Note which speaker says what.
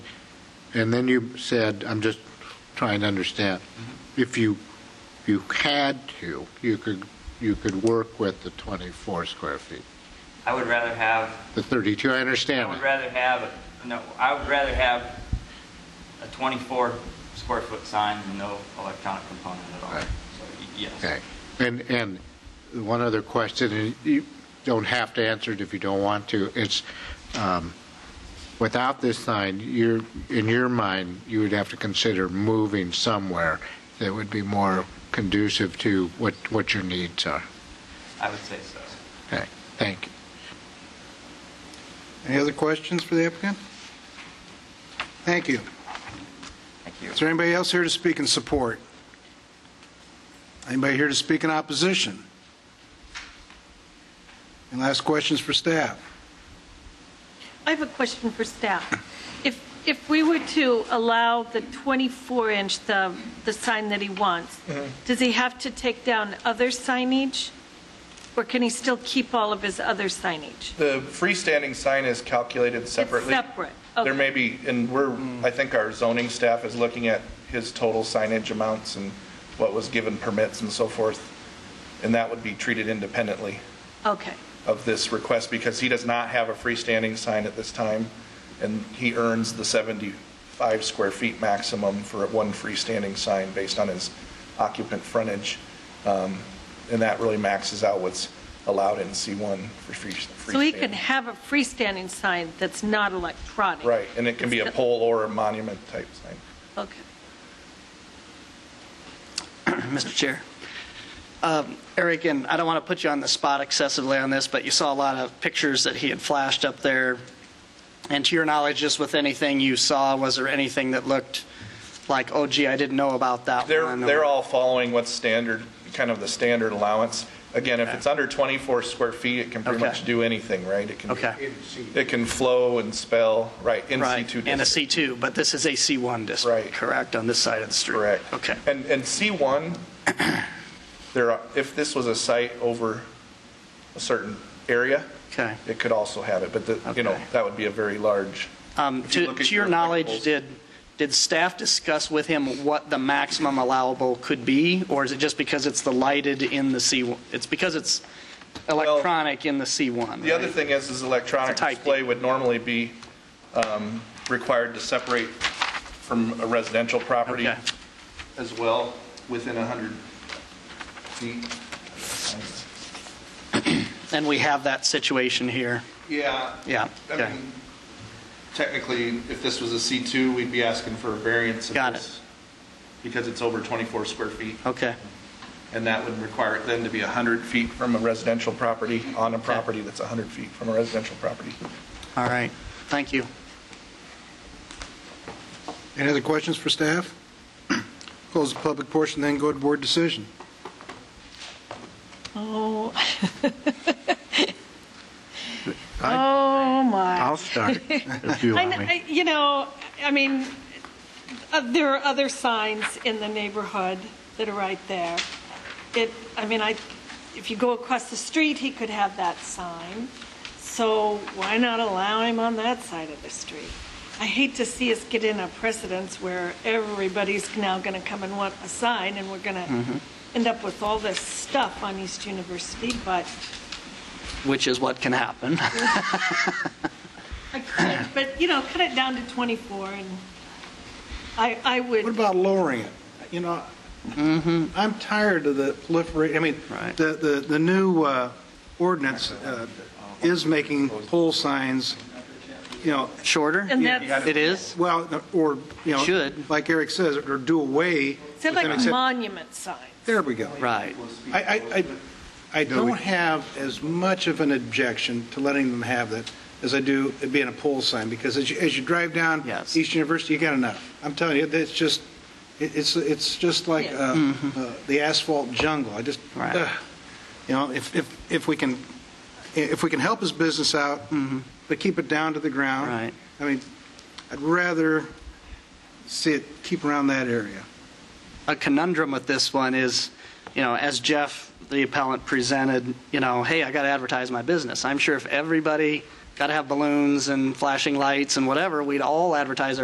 Speaker 1: And then you said, I'm just trying to understand, if you, you had to, you could, you could work with the 24 square feet,
Speaker 2: I would rather have,
Speaker 1: the 32, I
Speaker 2: I
Speaker 1: understand
Speaker 2: would
Speaker 1: that.
Speaker 2: rather have, a- no, I would rather have a 24 square foot sign with no electronic component at all.
Speaker 1: Right.
Speaker 2: So, y- yes.
Speaker 1: Okay. And, and one other question, and you don't have to answer it if you don't want to. It's, um, without this sign, you're, in your mind, you would have to consider moving somewhere that would be more conducive to what, what your needs are.
Speaker 2: I would say so.
Speaker 1: Okay, thank you.
Speaker 3: Any other questions for the applicant? Thank you.
Speaker 2: Thank you.
Speaker 3: Is there anybody else here to speak in support? Anybody here to speak in opposition? And last questions for staff.
Speaker 4: I have a question for staff. If, if we were to allow the 24-inch, the, the sign that he wants,
Speaker 5: Mm-hmm.
Speaker 4: does he have to take down other signage? Or can he still keep all of his other signage?
Speaker 5: The freestanding sign is calculated separately.
Speaker 4: separate,
Speaker 5: There
Speaker 4: okay.
Speaker 5: may be, and we're, I think our zoning staff is looking at his total signage amounts and what was given permits and so forth, and that would be treated independently
Speaker 4: Okay,
Speaker 5: of this request because he does not have a freestanding sign at this time, and he earns the 75 square feet maximum for one freestanding sign based on his occupant frontage, Um, and that really maxes out what's allowed in C1 for free- freestanding.
Speaker 4: so he can have a freestanding sign that's not electronic?
Speaker 5: Right, and it can be a pole or a monument type sign.
Speaker 4: Okay.
Speaker 6: Mr. Chair. Um, Eric, and I don't want to put you on the spot excessively on this, but you saw a lot of pictures that he had flashed up there. And to your knowledge, just with anything you saw, was there anything that looked like, oh gee, I didn't know about that
Speaker 5: They're,
Speaker 6: one? or-
Speaker 5: they're all following what's standard, kind of the standard allowance. Again, if it's under 24 square feet, it can pretty
Speaker 6: Okay.
Speaker 5: much do anything, right? It can be-
Speaker 6: Okay.
Speaker 5: It can flow and spell, right, in C2
Speaker 6: Right,
Speaker 5: district.
Speaker 6: and a C2, but this is a C1 district.
Speaker 5: Right.
Speaker 6: Correct, on this side of the street?
Speaker 5: Correct.
Speaker 6: Okay.
Speaker 5: And, and C1, there are, if this was a site over a certain area,
Speaker 6: Okay.
Speaker 5: it could also have it, but the, you know,
Speaker 6: Okay.
Speaker 5: that would be a very large.
Speaker 6: Um,
Speaker 5: If you
Speaker 6: To
Speaker 5: look at
Speaker 6: to your
Speaker 5: your
Speaker 6: knowledge,
Speaker 5: articles-
Speaker 6: did, did staff discuss with him what the maximum allowable could be? Or is it just because it's the lighted in the C1? It's because it's electronic in the C1,
Speaker 5: The other
Speaker 6: right?
Speaker 5: thing is, is electronic
Speaker 6: It's a type.
Speaker 5: display would normally be um, required to separate from a residential property
Speaker 6: Okay.
Speaker 5: as well, within 100 feet.
Speaker 6: And we have that situation here.
Speaker 5: Yeah.
Speaker 6: Yeah,
Speaker 5: I
Speaker 6: okay.
Speaker 5: mean, technically, if this was a C2, we'd be asking for a variance of
Speaker 6: Got it.
Speaker 5: this. Because it's over 24 square feet,
Speaker 6: Okay,
Speaker 5: and that would require it then to be 100 feet from a residential property, on a property that's 100 feet from a residential property.
Speaker 6: all right, thank you.
Speaker 3: Any other questions for staff? Close the public portion, then go to board decision.
Speaker 4: Oh. Oh, my.
Speaker 1: I'll start, if you
Speaker 4: I
Speaker 1: want
Speaker 4: kn-
Speaker 1: me.
Speaker 4: I- You know, I mean, uh, there are other signs in the neighborhood that are right there. It, I mean, I, if you go across the street, he could have that sign, so why not allow him on that side of the street? I hate to see us get in a precedence where everybody's now going to come and want a sign, and we're going
Speaker 1: Mm-hmm.
Speaker 4: to end up with all this stuff on East University, but
Speaker 6: Which is what can happen.
Speaker 4: I could, but, you know, cut it down to 24, and I, I would.
Speaker 3: What about lowering it? You know,
Speaker 2: Mm-hmm.
Speaker 3: I'm tired of the proliferate, I mean,
Speaker 6: Right.
Speaker 3: the, the, the new uh, ordinance uh, is making pole signs, you know,
Speaker 6: Shorter?
Speaker 4: And that's-
Speaker 6: It is?
Speaker 3: well, or, you know.
Speaker 6: Should.
Speaker 3: Like Eric says, or do away. with
Speaker 4: Said like
Speaker 3: them,
Speaker 4: a
Speaker 3: except-
Speaker 4: monument sign.
Speaker 3: There we go.
Speaker 6: Right,
Speaker 3: I, I, I- I don't have as much of an objection to letting them have that as I do it being a pole sign, because as you, as you drive down
Speaker 6: Yes.
Speaker 3: East University, you got enough. I'm telling you, it's just, it- it's, it's just like
Speaker 4: Yeah.
Speaker 3: uh, uh, the asphalt jungle. I just,
Speaker 6: Mm-hmm. Right.
Speaker 3: ugh. you know, if, if, if we can, if we can help his business out, but keep it down to the ground.
Speaker 6: Mm-hmm. Right.
Speaker 3: I mean, I'd rather see it keep around that area.
Speaker 6: a conundrum with this one is, you know, as Jeff, the appellant, presented, you know, hey, I got to advertise my business. I'm sure if everybody got to have balloons and flashing lights and whatever, we'd all advertise our